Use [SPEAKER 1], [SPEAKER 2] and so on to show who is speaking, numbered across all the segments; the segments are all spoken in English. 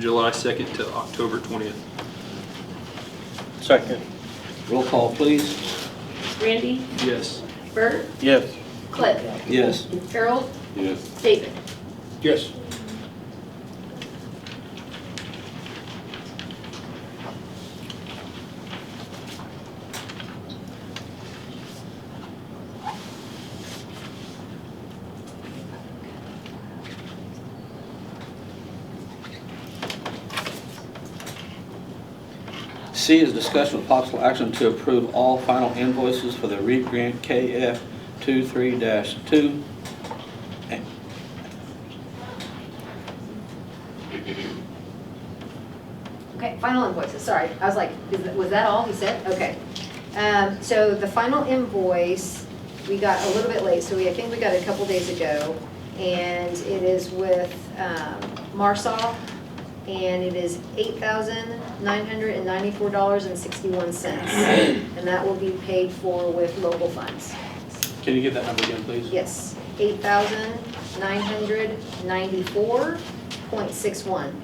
[SPEAKER 1] July 2nd to October 20th.
[SPEAKER 2] Second.
[SPEAKER 3] Roll call, please.
[SPEAKER 4] Randy,
[SPEAKER 1] Yes.
[SPEAKER 4] Bert,
[SPEAKER 2] Yes.
[SPEAKER 4] Cliff,
[SPEAKER 3] Yes.
[SPEAKER 4] Harold,
[SPEAKER 2] Yes.
[SPEAKER 4] David.
[SPEAKER 2] Yes.
[SPEAKER 3] C is discussion with possible action to approve all final invoices for the REAP grant KF 23-2. And-
[SPEAKER 4] Okay, final invoices, sorry. I was like, is that- was that all he said? Okay. Um, So the final invoice, we got a little bit late, so we, I think we got it a couple days ago. And it is with um, Marsol, and it is $8,994.61. And that will be paid for with local funds.
[SPEAKER 3] Can you get that number again, please?
[SPEAKER 4] Yes, eight thousand nine hundred ninety-four point six one.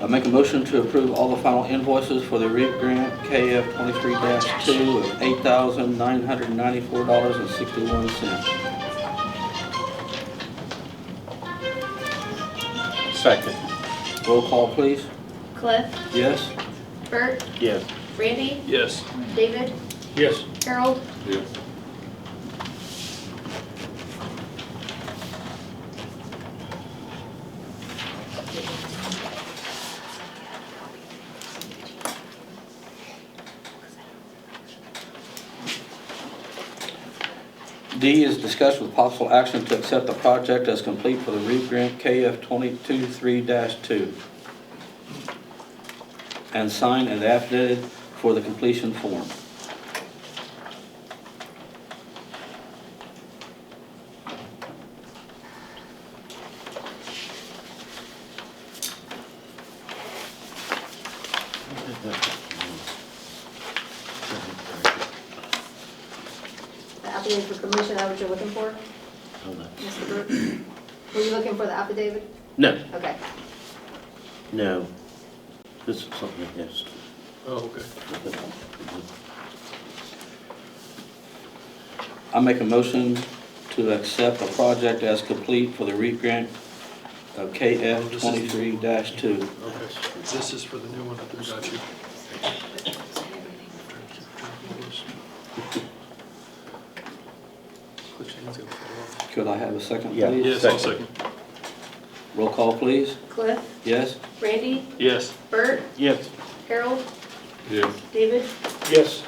[SPEAKER 3] I make a motion to approve all the final invoices for the REAP grant KF 23-2 of $8,994.61.
[SPEAKER 2] Second.
[SPEAKER 3] Roll call, please.
[SPEAKER 4] Cliff,
[SPEAKER 3] Yes.
[SPEAKER 4] Bert,
[SPEAKER 2] Yes.
[SPEAKER 4] Randy,
[SPEAKER 1] Yes.
[SPEAKER 4] David,
[SPEAKER 2] Yes.
[SPEAKER 4] Harold,
[SPEAKER 2] Yes.
[SPEAKER 3] D is discussed with possible action to accept the project as complete for the REAP grant KF 223-2 and sign an affidavit for the completion form.
[SPEAKER 4] the affidavit for commission, is that what you're looking for, Mr. Bert? Were you looking for the affidavit?
[SPEAKER 2] No,
[SPEAKER 4] Okay,
[SPEAKER 2] no. This is something else.
[SPEAKER 1] Oh, okay.
[SPEAKER 3] I make a motion to accept the project as complete for the REAP grant uh, of KF 23-2.
[SPEAKER 1] Okay. This is for the new one that they got you. Cliff Shane's gonna fall off.
[SPEAKER 3] Could I have a second,
[SPEAKER 2] Yeah.
[SPEAKER 3] please?
[SPEAKER 1] Yes, I'll second.
[SPEAKER 3] Roll call, please.
[SPEAKER 4] Cliff,
[SPEAKER 3] Yes?
[SPEAKER 4] Randy,
[SPEAKER 1] Yes.
[SPEAKER 4] Bert,
[SPEAKER 2] Yes.
[SPEAKER 4] Harold,
[SPEAKER 2] Yes.
[SPEAKER 4] David.
[SPEAKER 2] Yes.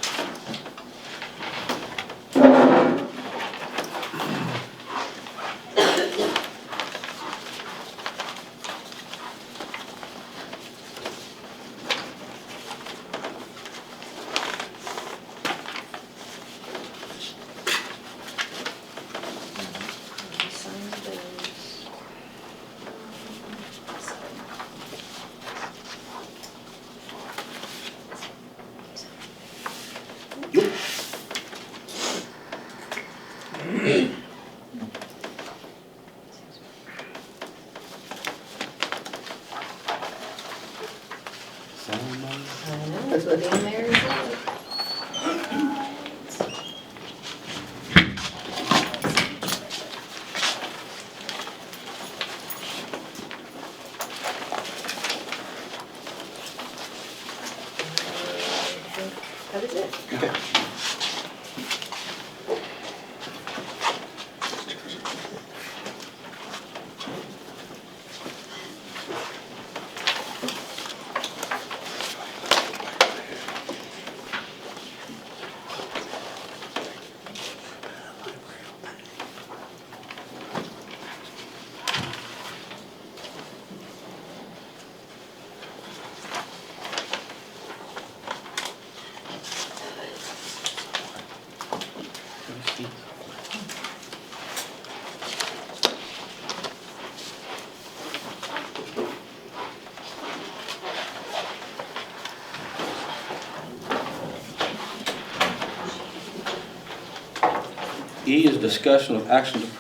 [SPEAKER 3] E is discussion of action to approve